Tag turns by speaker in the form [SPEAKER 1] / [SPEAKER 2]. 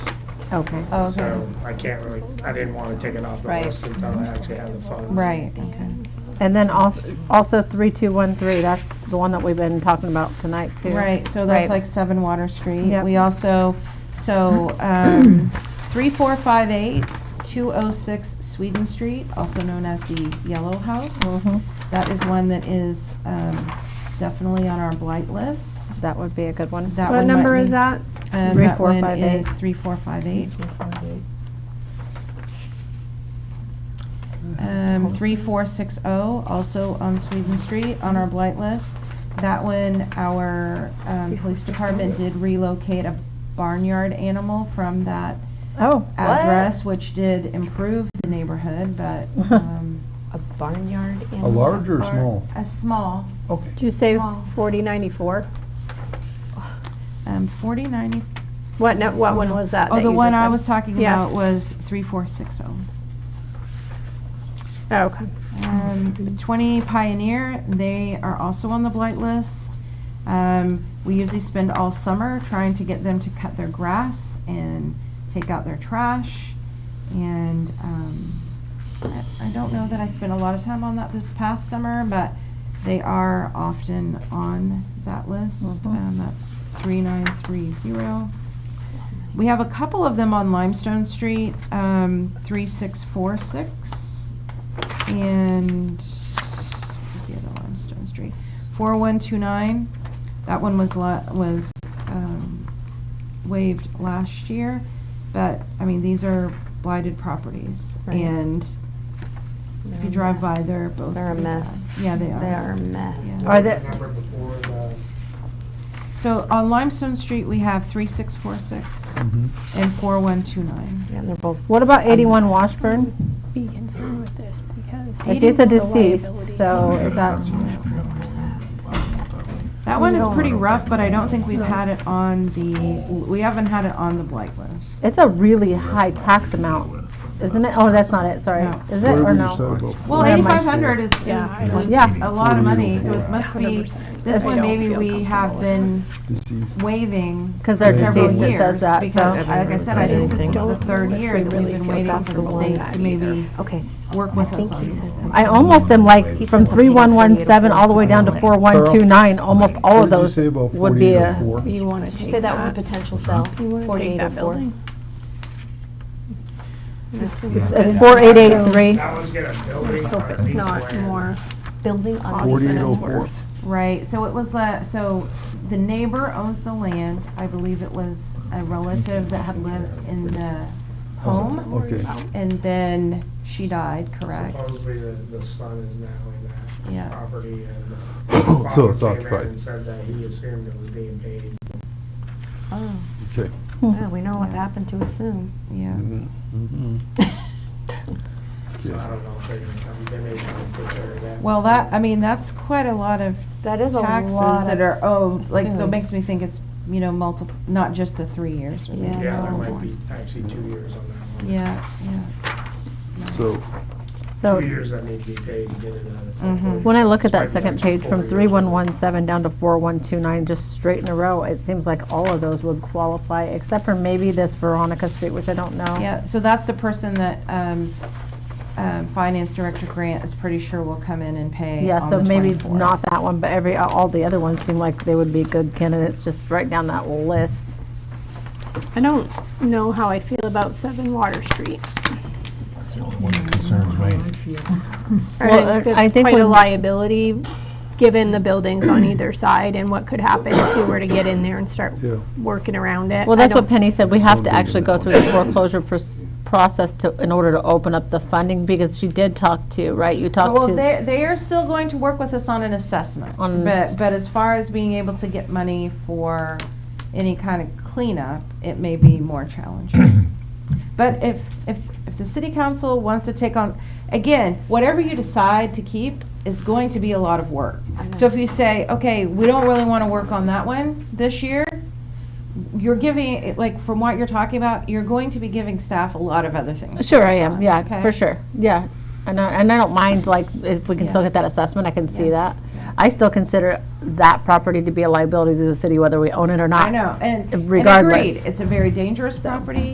[SPEAKER 1] Okay,
[SPEAKER 2] Okay,
[SPEAKER 3] So I can't really, I didn't want to take it off the
[SPEAKER 2] Right.
[SPEAKER 3] list until I actually have the funds.
[SPEAKER 2] right, okay.
[SPEAKER 1] and then also, also 3213, that's the one that we've been talking about tonight, too.
[SPEAKER 2] Right, so
[SPEAKER 1] Right.
[SPEAKER 2] that's like Seven Water Street.
[SPEAKER 1] Yep.
[SPEAKER 2] We also, so, um, three, four, five, eight, two oh six Sweden Street, also known as the Yellow House.
[SPEAKER 1] Mhm.
[SPEAKER 2] That is one that is, um, definitely on our blight list.
[SPEAKER 1] That would be a good one.
[SPEAKER 2] That
[SPEAKER 4] What
[SPEAKER 2] one might
[SPEAKER 4] number
[SPEAKER 2] be-
[SPEAKER 4] is that?
[SPEAKER 2] And
[SPEAKER 1] Three,
[SPEAKER 2] that
[SPEAKER 1] four,
[SPEAKER 2] one
[SPEAKER 1] five, eight.
[SPEAKER 2] is three, four, five, eight.
[SPEAKER 1] Mm-hmm.
[SPEAKER 2] Um, three, four, six, oh, also on Sweden Street, on our blight list. That one, our, um, police department did relocate a barnyard animal from that
[SPEAKER 1] Oh.
[SPEAKER 2] address, which did improve the neighborhood, but, um.
[SPEAKER 5] A barnyard
[SPEAKER 6] A
[SPEAKER 5] animal?
[SPEAKER 6] large or
[SPEAKER 2] are-
[SPEAKER 6] small?
[SPEAKER 2] A small,
[SPEAKER 6] Okay.
[SPEAKER 4] Did you say
[SPEAKER 2] Small.
[SPEAKER 4] 4094?
[SPEAKER 2] um, forty ninety.
[SPEAKER 4] What, no, what one was that?
[SPEAKER 2] Oh,
[SPEAKER 4] that
[SPEAKER 2] the
[SPEAKER 4] you
[SPEAKER 2] one
[SPEAKER 4] just
[SPEAKER 2] I
[SPEAKER 4] said?
[SPEAKER 2] was talking
[SPEAKER 4] Yes.
[SPEAKER 2] about was three, four, six, oh.
[SPEAKER 4] Oh, Okay.
[SPEAKER 2] Um, 20 Pioneer, they are also on the blight list. Um, we usually spend all summer trying to get them to cut their grass and take out their trash. And um, I, I don't know that I spent a lot of time on that this past summer, but they are often on that list.
[SPEAKER 1] Mhm.
[SPEAKER 2] Um, that's 3930. We have a couple of them on Limestone Street, um, 3646. And, what's the other Limestone Street? 4129. That one was, la- was um, waived last year, but, I mean, these are blighted properties.
[SPEAKER 5] Right.
[SPEAKER 2] And if you drive by, they're both.
[SPEAKER 5] They're a
[SPEAKER 2] pretty
[SPEAKER 5] mess.
[SPEAKER 2] bad. Yeah, they are.
[SPEAKER 5] They are a mess.
[SPEAKER 2] Yeah.
[SPEAKER 1] Are they-
[SPEAKER 3] Remember before the,
[SPEAKER 2] So on Limestone Street, we have 3646
[SPEAKER 6] Mhm.
[SPEAKER 2] and 4129.
[SPEAKER 5] Yeah, and they're both.
[SPEAKER 1] What about 81 Washburn?
[SPEAKER 7] be concerned with this because.
[SPEAKER 1] It is a
[SPEAKER 7] the
[SPEAKER 1] deceased,
[SPEAKER 7] liabilities-
[SPEAKER 1] so is that,
[SPEAKER 2] That one is
[SPEAKER 1] No.
[SPEAKER 2] pretty rough, but I don't think we've had it on the, we haven't had it on the blight list.
[SPEAKER 1] it's a really high tax amount, isn't it? Oh, that's not it, sorry.
[SPEAKER 2] No.
[SPEAKER 1] Is it or
[SPEAKER 6] Whatever you
[SPEAKER 1] no?
[SPEAKER 6] said about
[SPEAKER 2] Well,
[SPEAKER 1] Yeah, my-
[SPEAKER 2] eighty-five hundred is, is, is
[SPEAKER 1] Yeah.
[SPEAKER 2] a lot of money, so it must be,
[SPEAKER 7] 100%.
[SPEAKER 2] this
[SPEAKER 7] I
[SPEAKER 2] one
[SPEAKER 7] don't
[SPEAKER 2] maybe
[SPEAKER 7] feel
[SPEAKER 2] we have
[SPEAKER 7] comfortable
[SPEAKER 2] been
[SPEAKER 6] deceased.
[SPEAKER 2] waiving
[SPEAKER 1] 'Cause
[SPEAKER 2] for
[SPEAKER 1] they're
[SPEAKER 2] several
[SPEAKER 1] deceased, it says
[SPEAKER 2] years.
[SPEAKER 1] that,
[SPEAKER 2] Because, uh,
[SPEAKER 1] so-
[SPEAKER 2] like I said, I think this is the
[SPEAKER 5] Don't
[SPEAKER 2] third
[SPEAKER 5] know if
[SPEAKER 2] year
[SPEAKER 5] we
[SPEAKER 2] that
[SPEAKER 5] really
[SPEAKER 2] we've been
[SPEAKER 5] feel
[SPEAKER 2] waiting for the
[SPEAKER 5] comfortable on
[SPEAKER 2] state
[SPEAKER 5] that
[SPEAKER 2] to
[SPEAKER 5] either.
[SPEAKER 2] maybe
[SPEAKER 5] Okay.
[SPEAKER 2] work
[SPEAKER 5] I
[SPEAKER 2] with us
[SPEAKER 5] think
[SPEAKER 2] on
[SPEAKER 5] he said
[SPEAKER 2] these.
[SPEAKER 5] something.
[SPEAKER 1] I almost am like,
[SPEAKER 5] He
[SPEAKER 1] from
[SPEAKER 5] said something about
[SPEAKER 1] 3117 all the way down to
[SPEAKER 5] 48.
[SPEAKER 1] 4129, almost all of
[SPEAKER 6] What did you
[SPEAKER 1] those
[SPEAKER 6] say about
[SPEAKER 1] would be a,
[SPEAKER 6] 4804?
[SPEAKER 7] You want to
[SPEAKER 5] Did
[SPEAKER 7] take
[SPEAKER 5] you say that was a
[SPEAKER 7] that,
[SPEAKER 5] potential sell?
[SPEAKER 7] you want to take that building?
[SPEAKER 1] it's 4883.
[SPEAKER 3] that one's gonna building
[SPEAKER 7] Let's hope
[SPEAKER 3] or a
[SPEAKER 7] it's
[SPEAKER 3] piece of
[SPEAKER 7] not
[SPEAKER 3] land.
[SPEAKER 7] more.
[SPEAKER 5] Building on.
[SPEAKER 6] Forty-eight oh
[SPEAKER 7] Forty-eight-oh-four.
[SPEAKER 6] four.
[SPEAKER 2] Right, so it was, uh, so the neighbor owns the land, I believe it was a relative that had lived in the home,
[SPEAKER 6] Okay.
[SPEAKER 2] and then she died, correct?
[SPEAKER 3] Supposedly the, the son is now in that
[SPEAKER 2] Yeah.
[SPEAKER 3] property and the
[SPEAKER 6] So
[SPEAKER 3] father
[SPEAKER 6] it's
[SPEAKER 3] came in
[SPEAKER 6] occupied.
[SPEAKER 3] and said that he assumed it was being paid.
[SPEAKER 5] Oh,
[SPEAKER 6] Okay.
[SPEAKER 2] Hmm.
[SPEAKER 1] Hmm.
[SPEAKER 5] yeah, we know what happened to us soon.
[SPEAKER 2] Yeah.
[SPEAKER 6] Mhm. Mhm.
[SPEAKER 3] So I
[SPEAKER 6] Yeah.
[SPEAKER 3] don't know if they're gonna come, they may come take care of that.
[SPEAKER 2] Well, that, I mean, that's quite a lot of
[SPEAKER 5] That is a
[SPEAKER 2] taxes
[SPEAKER 5] lot
[SPEAKER 2] that
[SPEAKER 5] of-
[SPEAKER 2] are owed, like, that
[SPEAKER 5] food.
[SPEAKER 2] makes me think it's, you know, multiple, not just the three years. but maybe
[SPEAKER 5] Yeah,
[SPEAKER 2] it's
[SPEAKER 3] Yeah, there
[SPEAKER 2] all
[SPEAKER 3] might
[SPEAKER 2] more.
[SPEAKER 3] be actually two years on that one.
[SPEAKER 2] Yeah, yeah.
[SPEAKER 6] So,
[SPEAKER 1] So. Mm-hmm.
[SPEAKER 3] Two years that need to be paid to get it out of.
[SPEAKER 2] Mhm.
[SPEAKER 1] When I look at
[SPEAKER 3] Might
[SPEAKER 1] that
[SPEAKER 3] be
[SPEAKER 1] second
[SPEAKER 3] actually
[SPEAKER 1] page,
[SPEAKER 3] four
[SPEAKER 1] from
[SPEAKER 3] years.
[SPEAKER 1] 3117 down to 4129, just straight in a row, it seems like all of those would qualify, except for maybe this Veronica Street, which I don't know.
[SPEAKER 2] Yeah, so that's the person that, um, um, Finance Director Grant is pretty sure will come in and pay
[SPEAKER 1] Yeah,
[SPEAKER 2] on
[SPEAKER 1] so
[SPEAKER 2] the
[SPEAKER 1] maybe
[SPEAKER 2] 24th.
[SPEAKER 1] not that one, but every, all the other ones seem like they would be good candidates, just right down that list.
[SPEAKER 7] I don't know how I feel about Seven Water Street.
[SPEAKER 1] Well,
[SPEAKER 7] I
[SPEAKER 1] I think
[SPEAKER 7] think that's quite a
[SPEAKER 1] when-
[SPEAKER 7] liability, given the buildings on either side and what could happen if you were to get in there and start
[SPEAKER 6] Yeah.
[SPEAKER 7] working around it.
[SPEAKER 1] Well,
[SPEAKER 7] I
[SPEAKER 1] that's what
[SPEAKER 7] don't-
[SPEAKER 1] Penny said, we have
[SPEAKER 6] Don't
[SPEAKER 1] to
[SPEAKER 6] do
[SPEAKER 1] actually go
[SPEAKER 6] that
[SPEAKER 1] through the foreclosure pros- process to, in order to open up the funding, because she did talk to, right? You talked
[SPEAKER 2] Well,
[SPEAKER 1] to,
[SPEAKER 2] they, they are still going to work with us on an assessment,
[SPEAKER 1] On-
[SPEAKER 2] but, but as far as being able to get money for any kind of cleanup, it may be more challenging. But if, if, if the city council wants to take on, again, whatever you decide to keep is going to be a lot of work.
[SPEAKER 5] I know.
[SPEAKER 2] So if you say, okay, we don't really want to work on that one this year, you're giving, like, from what you're talking about, you're going to be giving staff a lot of other things. to
[SPEAKER 1] sure, I
[SPEAKER 2] work
[SPEAKER 1] am,
[SPEAKER 2] on,
[SPEAKER 1] yeah,
[SPEAKER 2] okay?
[SPEAKER 1] for sure, yeah. And I, and I don't mind, like, if we can still
[SPEAKER 2] Yeah.
[SPEAKER 1] get that assessment, I can see
[SPEAKER 2] Yeah.
[SPEAKER 1] that. I still consider that property to be a liability to the city, whether we own it or not.
[SPEAKER 2] I know, and, and
[SPEAKER 1] regardless.
[SPEAKER 2] agreed, it's a very dangerous property.